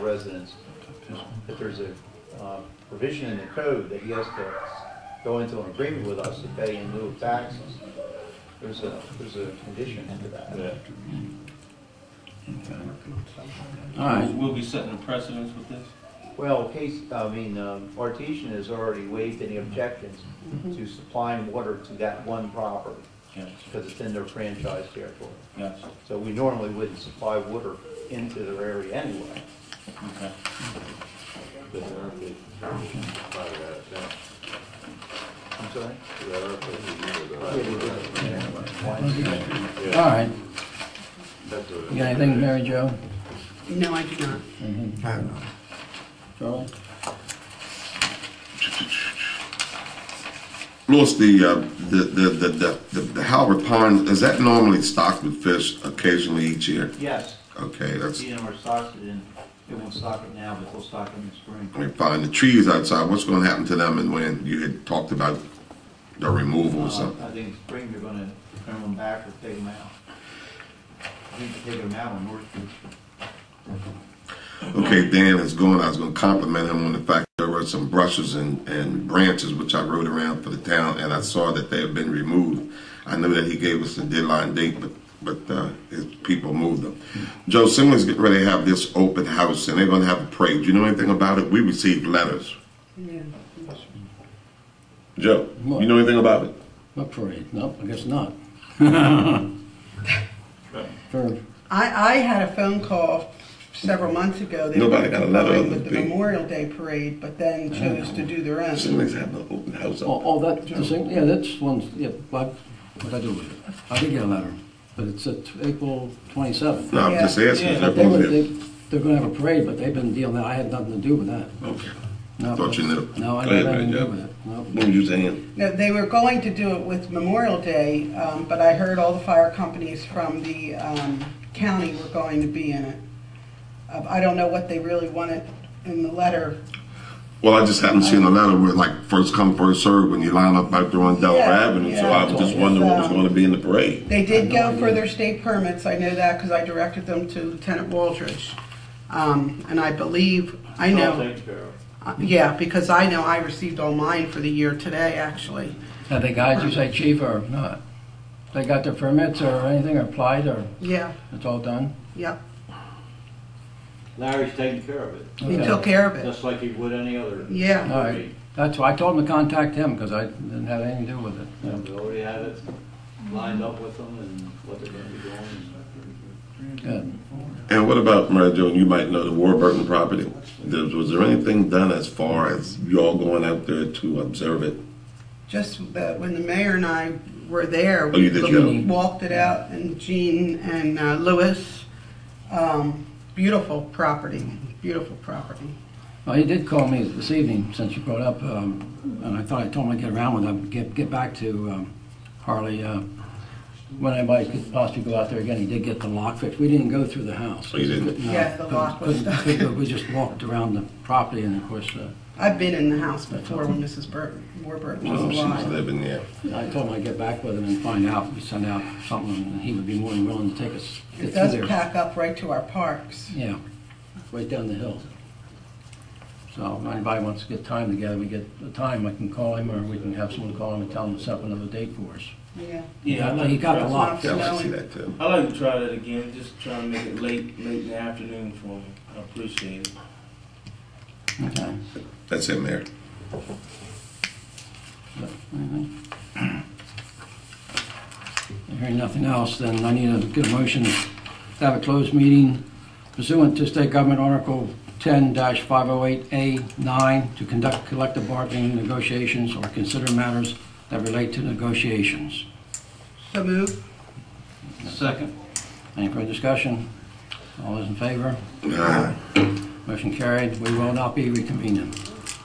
residents, that there's a uh, provision in the code that he has to go into an agreement with us to pay in lieu of taxes. There's a, there's a condition to that. Yeah. All right, We'll be setting a precedence with this? Well, case, I mean, um, Artesian has already waived any objections to supplying water to that one property, Gotcha, because it's in their franchise territory. gotcha, So we normally wouldn't supply water into their area anyway. okay. I'm sorry? all right. You got anything, Mary Jo? No, I do not. Charlie? Louis, the, uh, the, the, the, the, the- the Howard Pond, is that normally stocked with fish occasionally each year? Yes, Okay, that's, you know, we're stocked it in, it won't stock it now, but we'll stock it in the spring. I mean, fine, the trees outside, what's gonna happen to them and when you had talked about the removal or Uh, something? I think in spring they're gonna turn them back or take them out. I think they're taking them out on North Beach. Okay, Dan is going, I was gonna compliment him on the fact that there were some brushes and, and branches which I rode around for the town and I saw that they have been removed. I know that he gave us the deadline date, but, but, uh, his people moved them. Joe Simmons getting ready to have this open house and they're gonna have a parade. Do you know anything about it? We received letters. Yeah. Joe, What? you know anything about it? What parade? Nope, I guess not. Fair. I, I had a phone call several months ago. They Nobody were got a letter going other With than the me. Memorial Day parade, but then chose to do their own. Simmons having an open house Oh, oh, that, the same, yeah, that's one, yeah, what, what I do with it? I did get a letter, but it's at April twenty-seventh. No, I'm just asking. Yeah. is that They were, what it they, is? they're gonna have a parade, but they've been dealing, I had nothing to do with that. Okay. No, Thought you knew. No, I Go ahead, had nothing to Mary do Jo. with it, no. What were you saying? No, they were going to do it with Memorial Day, um, but I heard all the fire companies from the, um, county were going to be in it. Uh, I don't know what they really wanted in the letter. Well, I just happened to see in the letter where like first come, first served when you line up out there on Delaware Yeah, Avenue. So yeah. I was just wondering what was Um, going to be in the parade. They I did have no go for idea. their state permits, I know that, because I directed them to Lieutenant Waldridge. Um, and I believe, I Oh, know. Uh, Yeah, because I know I received all mine for the year today, actually. Have they got, you say chief or not? They got their permits or anything, or applied, or Yeah, it's all done? yep. Larry's taking care of it, He Okay. Uh, took care of it. just like he would any other. Yeah. All right, that's why I told him to contact him, because I didn't have anything to do with it. And we already have it lined up with them and what they're gonna be doing. Good. And what about Mary Jo? You might know the Warburton property. There- Was there anything done as far as y'all going out there to observe it? Just that when the mayor and I were there, Oh, you did go. we walked it out, and Gene and uh, Louis, um, beautiful property, beautiful property. Well, he did call me this evening, since you brought up, um, and I thought I told him I'd get around with him, get, get back to um, Harley, uh, when anybody could possibly go out there again, he did get the lock fixed. We didn't go through the house. Oh, you didn't? No, Yeah, the lock was couldn't- stuck. couldn't- We just walked around the property, and of course, uh, I've been in the house before when Mrs. Burton, Warburton was Well, she was alive. living there. I told him I'd get back with him and find out, we send out something, and he would be more than willing to take us. get It through does there. pack up right to our parks. Yeah, right down the hill. So if anybody wants to get time together, we get a time, I can call him, or we can have someone call him and tell him to set up another date for us. Yeah. Yeah, he got the lot. Yeah, I can see that too. I'd like to try that again, just try to make it late, late in the afternoon for me. I appreciate it. Okay. That's it, Mayor. Anything? Hearing nothing else, then I need a good motion to have a closed meeting pursuant to State Government Article 10-508A9 to conduct collective bargaining negotiations or consider matters that relate to negotiations. So move. Second. Any further discussion? All those in favor? All right. Motion carried. We will not be reconvening.